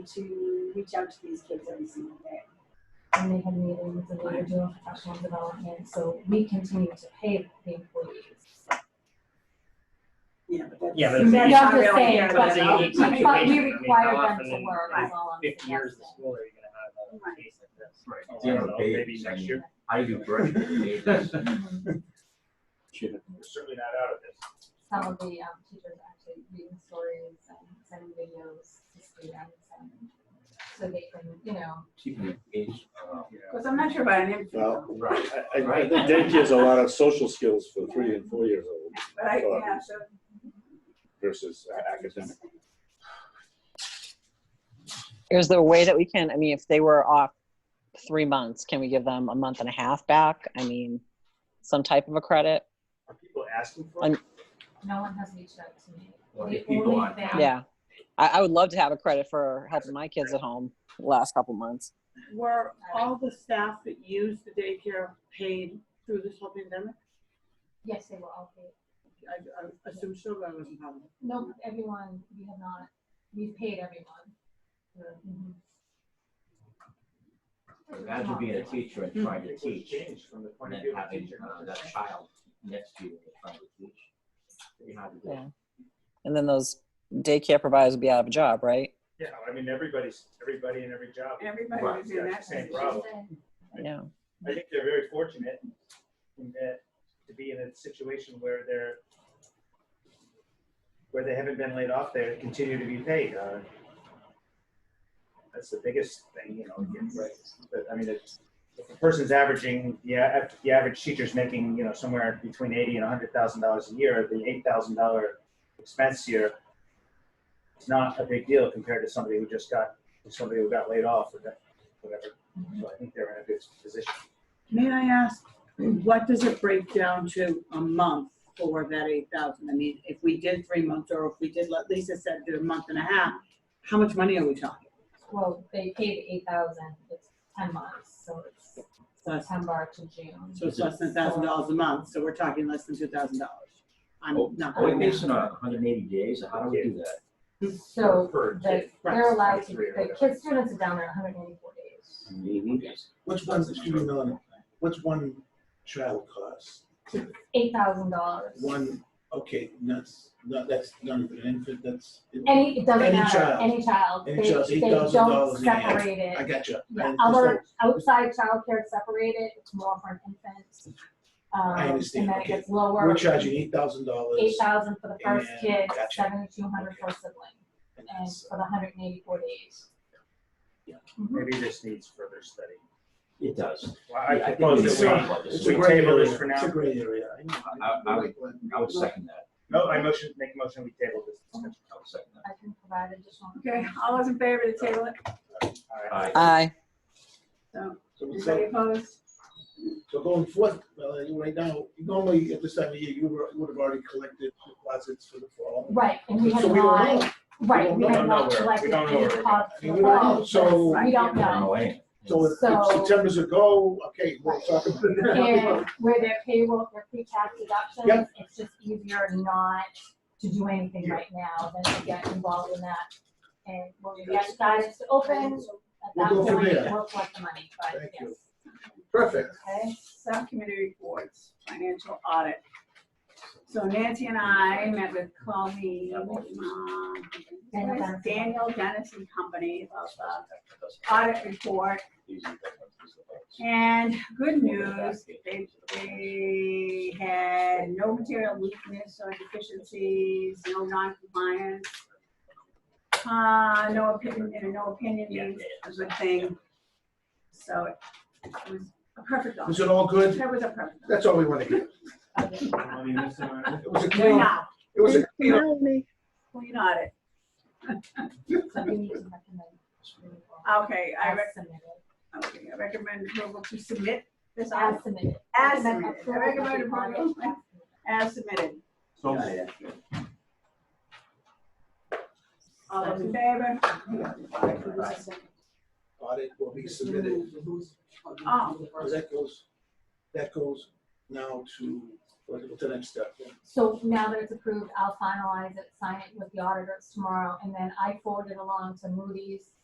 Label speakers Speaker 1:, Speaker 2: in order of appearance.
Speaker 1: to reach out to these kids every single day.
Speaker 2: and they had meetings and we were doing professional development, so we continue to pay the employees.
Speaker 1: Yeah, but that's.
Speaker 3: Yeah, but
Speaker 2: You
Speaker 3: it's-
Speaker 2: have to say,
Speaker 1: That's not really-
Speaker 2: but,
Speaker 3: it's a unique
Speaker 2: but we
Speaker 3: situation. I mean,
Speaker 2: require
Speaker 3: how
Speaker 2: them
Speaker 3: often
Speaker 2: to
Speaker 3: in-
Speaker 2: work,
Speaker 3: in
Speaker 2: is all I'm
Speaker 3: Fifty years
Speaker 2: suggesting.
Speaker 3: of school, are you gonna have
Speaker 1: Right.
Speaker 3: a case like this?
Speaker 4: Right.
Speaker 3: Oh, I
Speaker 4: Do you have
Speaker 3: don't
Speaker 4: a
Speaker 3: know,
Speaker 4: base?
Speaker 3: Maybe
Speaker 4: I
Speaker 3: next
Speaker 4: mean,
Speaker 3: year.
Speaker 4: I do great.
Speaker 2: Mhm.
Speaker 3: We're certainly not out of this.
Speaker 2: Some of the um, teachers actually reading stories and sending videos to students and so they can, you know,
Speaker 4: Keeping it engaged. uh,
Speaker 1: Because I'm not sure about an infant,
Speaker 5: Well,
Speaker 4: Right.
Speaker 5: I, I I think daycare's a lot of social skills for three and four years old
Speaker 1: but I, yeah, so.
Speaker 5: versus academic.
Speaker 6: Is there a way that we can, I mean, if they were off three months, can we give them a month and a half back? I mean, some type of a credit?
Speaker 3: Are people asking for
Speaker 6: I'm-
Speaker 3: it?
Speaker 2: no one has reached out to me.
Speaker 4: Well,
Speaker 2: The
Speaker 4: if people
Speaker 2: only
Speaker 4: are-
Speaker 2: thing-
Speaker 6: Yeah. I, I would love to have a credit for helping my kids at home the last couple months.
Speaker 7: Were all the staff that used the daycare paid through this whole pandemic?
Speaker 2: Yes, they were all paid.
Speaker 7: I, I assume so, but I wasn't having.
Speaker 2: No, everyone, we have not, we've paid everyone. Mhm.
Speaker 4: Imagine being a teacher and trying to
Speaker 3: It was
Speaker 4: teach
Speaker 3: changed from the
Speaker 4: and
Speaker 3: point of
Speaker 4: then
Speaker 3: view of a
Speaker 4: having
Speaker 3: teacher.
Speaker 4: uh, that child next to you and trying to teach. Pretty hard to do.
Speaker 6: Yeah. And then those daycare providers would be out of a job, right?
Speaker 3: Yeah, I mean, everybody's, everybody in every job.
Speaker 1: Everybody
Speaker 4: Right.
Speaker 1: was in that
Speaker 3: Same
Speaker 1: position.
Speaker 3: problem.
Speaker 6: Yeah.
Speaker 3: I think they're very fortunate in that, to be in a situation where they're, where they haven't been laid off, they continue to be paid. uh, That's the biggest thing, you know, again, right? But I mean, it's, if a person's averaging, yeah, if the average teacher's making, you know, somewhere between eighty and a hundred thousand dollars a year, the eight thousand dollar expense here is not a big deal compared to somebody who just got, somebody who got laid off or that- whatever. So I think they're in a good position.
Speaker 7: May I ask, what does it break down to a month for that eight thousand? I mean, if we did three months or if we did, like Lisa said, did a month and a half, how much money are we talking?
Speaker 2: Well, they paid eight thousand, it's ten months, so it's
Speaker 7: Less-
Speaker 2: September to June.
Speaker 7: So it's less than a thousand dollars a month, so we're talking less than two thousand dollars. I'm not.
Speaker 4: Are we basing on hundred and eighty days? or How do we do that?
Speaker 2: So
Speaker 3: For-
Speaker 2: the, they're allowed to, the kids, students are down there hundred and eighty-four days.
Speaker 4: Eighty days.
Speaker 8: What's one student
Speaker 3: uh,
Speaker 8: on, what's one child cost?
Speaker 2: Eight thousand dollars.
Speaker 8: One, okay, that's, not, that's not even an infant, that's.
Speaker 2: Any, it doesn't
Speaker 8: Any
Speaker 2: matter,
Speaker 8: child.
Speaker 2: any child,
Speaker 8: Any
Speaker 2: they,
Speaker 8: child's
Speaker 2: they don't
Speaker 8: $8,000 in the end.
Speaker 2: separate
Speaker 8: I
Speaker 2: it.
Speaker 8: got you.
Speaker 2: Yeah, other, outside childcare is separated, it's more for an infant. Um,
Speaker 8: I understand,
Speaker 2: And then it
Speaker 8: okay.
Speaker 2: gets lower.
Speaker 8: We're charging eight thousand dollars.
Speaker 2: Eight thousand for the first
Speaker 8: And-
Speaker 2: kid,
Speaker 8: gotcha.
Speaker 2: seventy-two hundred for a sibling, and for the hundred and eighty-four days.
Speaker 3: Maybe this needs further study.
Speaker 4: It does.
Speaker 3: Well,
Speaker 4: Yeah, I
Speaker 3: I
Speaker 4: think
Speaker 3: propose
Speaker 4: we
Speaker 8: it's
Speaker 3: that
Speaker 4: talked
Speaker 3: we,
Speaker 4: about this.
Speaker 8: It's
Speaker 3: Should
Speaker 8: a
Speaker 3: we
Speaker 8: gray
Speaker 3: table this
Speaker 8: area.
Speaker 3: for
Speaker 8: It's a
Speaker 3: now?
Speaker 8: gray area. know.
Speaker 4: I- I would- I would second that.
Speaker 3: no, I motion, make a motion, we table this discussion.
Speaker 4: I would second that.
Speaker 2: I can provide additional.
Speaker 1: Okay, all those in favor to table it?
Speaker 3: All right.
Speaker 2: Uh,
Speaker 4: Aye.
Speaker 6: Aye.
Speaker 8: So we
Speaker 1: Anybody
Speaker 8: say-
Speaker 1: opposed?
Speaker 8: so going forth, well, uh, right now, normally at this time of year, you were, would have already collected deposits for the fall.
Speaker 2: Right, and we
Speaker 8: So
Speaker 2: have
Speaker 8: we don't
Speaker 2: not,
Speaker 8: know.
Speaker 2: right, we
Speaker 8: We
Speaker 2: have
Speaker 8: don't
Speaker 3: know
Speaker 2: not
Speaker 3: where- we
Speaker 2: collected
Speaker 3: don't know
Speaker 2: any
Speaker 3: where we're
Speaker 2: deposits
Speaker 8: going.
Speaker 2: for
Speaker 8: We don't know,
Speaker 2: all,
Speaker 8: so-
Speaker 2: that's- we don't
Speaker 4: I don't
Speaker 2: know.
Speaker 4: know anything.
Speaker 8: So if if
Speaker 2: So-
Speaker 8: September's a go, okay, we'll talk about
Speaker 2: And
Speaker 8: it.
Speaker 2: where their payroll, their pre-tax deductions,
Speaker 8: Yep.
Speaker 2: it's just easier not to do anything right now than to get involved in that. And when we get guidance to open, at
Speaker 8: We'll
Speaker 2: that
Speaker 8: go from
Speaker 2: point,
Speaker 8: there.
Speaker 2: we'll collect the money, but
Speaker 8: Thank
Speaker 2: yes,
Speaker 8: you. Perfect.
Speaker 1: Okay, subcommittee reports, financial audit. So Nancy and I met with Colleen, um, Dennis- Daniel, Dennis and Company about the audit report. And good news, they, they had no material weakness or deficiencies, no non-compliance. Uh, no opinion, and no opinion is a good thing. So it was a perfect audit.
Speaker 8: Is it all good?
Speaker 1: That was a perfect.
Speaker 8: That's all we want to hear.
Speaker 3: Anybody miss anyone?
Speaker 8: It was a
Speaker 1: We're
Speaker 8: clean,
Speaker 1: not,
Speaker 8: it was a clean.
Speaker 1: clean audit.
Speaker 2: so we need to recommend.
Speaker 1: Okay, I,
Speaker 2: As
Speaker 1: rec-
Speaker 2: submitted,
Speaker 1: okay, I recommend approval to submit this audit
Speaker 2: as submitted.
Speaker 1: As submitted. I recommend approval.
Speaker 2: As submitted.
Speaker 1: as submitted.
Speaker 3: So-
Speaker 1: All those in favor?
Speaker 8: Audit will be submitted.
Speaker 1: Oh,
Speaker 8: Well, That goes, that goes now to, what's the next step?
Speaker 2: So now that it's approved, I'll finalize it, sign it with the auditors tomorrow, and then I forward it along to Moody's